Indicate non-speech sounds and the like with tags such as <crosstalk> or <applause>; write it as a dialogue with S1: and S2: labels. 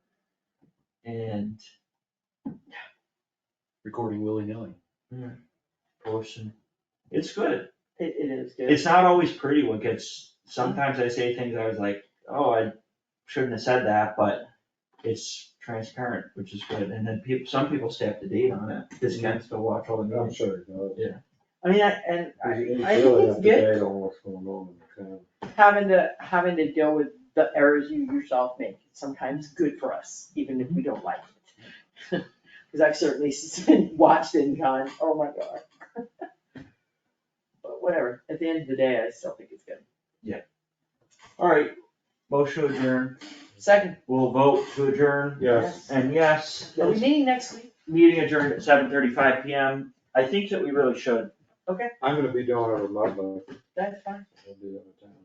S1: and
S2: recording willy-nilly.
S1: portion. It's good.
S3: It, it is good.
S1: It's not always pretty when gets, sometimes I say things I was like, oh, I shouldn't have said that, but it's transparent, which is good. And then people, some people stay up to date on it. This can still watch all the
S4: I'm
S1: meetings.
S4: sure it does.
S3: I mean, I, and I,
S4: You
S3: I
S4: really
S3: think
S4: have
S3: it's
S4: to
S3: good
S4: date on what's going on in the town.
S3: having to, having to deal with the errors you yourself make. It's sometimes good for us, even if we don't like it. <laughs> Cause I've certainly <laughs> seen- watched it and gone, oh my god. <laughs> But whatever, at the end of the day, I still think it's good.
S1: All right, motion to adjourn.
S3: Second,
S1: We'll vote to adjourn.
S4: Yes.
S1: And yes,
S3: are we meeting next week?
S1: meeting adjourned at seven thirty-five PM. I think that we really should
S4: I'm gonna be doing it remotely.
S3: That's fine.
S4: I'll be out of town.